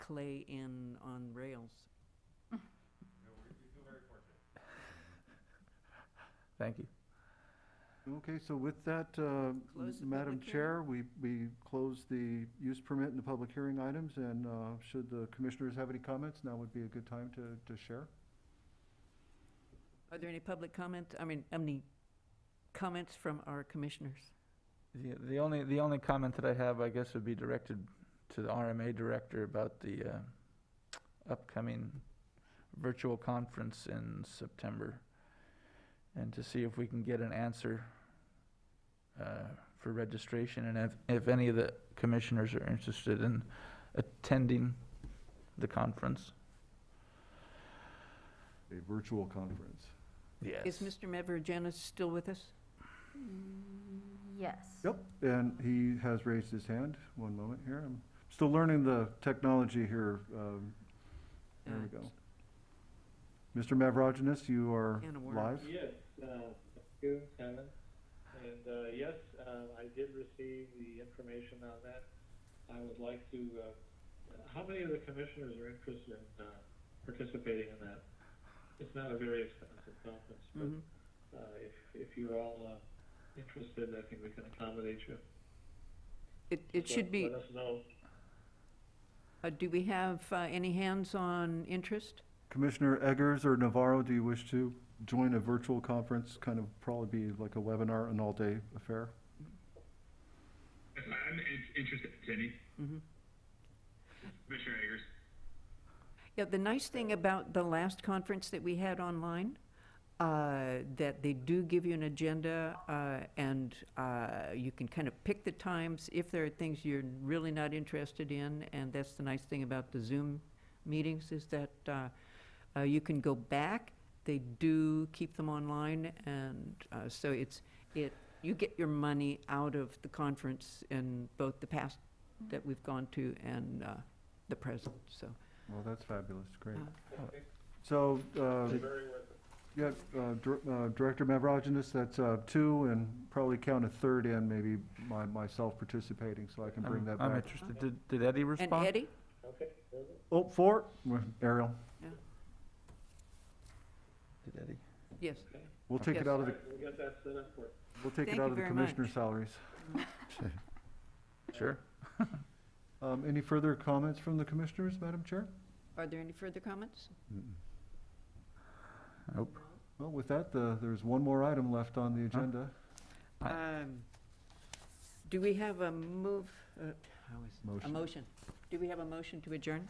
clay in on rails. Thank you. Okay, so with that, uh, Close the Madam public Chair, we, we close the use permit and the public hearing items, and uh, should the commissioners have any comments, now would be a good time to, to share. Are there any public comment, I mean, any comments from our commissioners? The, the only, the only comment that I have, I guess, would be directed to the RMA director about the uh, upcoming virtual conference in September. And to see if we can get an answer uh, for registration and if, if any of the commissioners are interested in attending the conference. A virtual conference. Yes. Is Mr. Mavroginis still with us? Yes. Yep, and he has raised his hand, one moment here, I'm still learning the technology here, um, there we Uh, go. Mr. Mavroginis, you are Can of worms. live? Yes, uh, thank you, Kevin. And uh, yes, uh, I did receive the information on that. I would like to, uh, how many of the commissioners are interested in uh, participating in that? It's not a very expensive conference, but Mhm. uh, if, if you're all uh, interested, I think we can accommodate you. It, it So should be, Let us know. uh, do we have uh, any hands on interest? Commissioner Eggers or Navarro, do you wish to join a virtual conference, kind of probably be like a webinar, an all-day affair? I'm in- interested, Cindy. Mhm. Commissioner Eggers. Yeah, the nice thing about the last conference that we had online, uh, that they do give you an agenda, uh, and, uh, you can kind of pick the times if there are things you're really not interested in, and that's the nice thing about the Zoom meetings, is that, uh, uh, you can go back. They do keep them online, and, uh, so it's, it, you get your money out of the conference in both the past that we've gone to and, uh, the present, so. Well, that's fabulous, great. Yeah. So, uh, Very worth it. yeah, uh, Dir- uh, Director Mavroginis, that's uh, two, and probably count a third in, maybe my- myself participating, so I can bring I'm- that I'm back. interested. Did, did Eddie And respond? Eddie? Okay, very good. Oh, four, Ariel, Did Eddie? Yes. we'll take it Yes. out All of the, right, we'll get that set up for you. we'll take Thank it you out of the very much. commissioner salaries. Sure. Um, Any further comments from the commissioners, Madam Chair? Are there any further comments? Nope. Well, with that, the- there's one more item left on the agenda. Um, Do we have a move, uh, how is it? a Motion. motion? Do we have a motion to adjourn?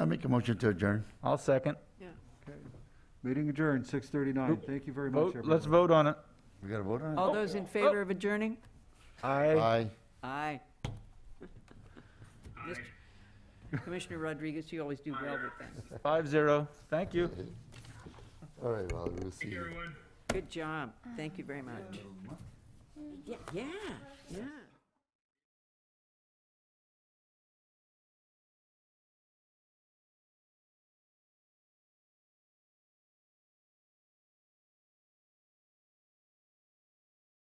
I make a motion to adjourn. I'll second. Okay. Meeting adjourned, six thirty-nine. Nope. Thank you very much, Vote, everyone. let's vote on it. We got to vote on it? All those in favor of adjourning? Aye. Aye. Aye. Mr. Commissioner Rodriguez, you always do well with that. Five zero. Thank you. All right, well, we'll see. Everyone. Good job. Thank you very much. Yeah, yeah, yeah.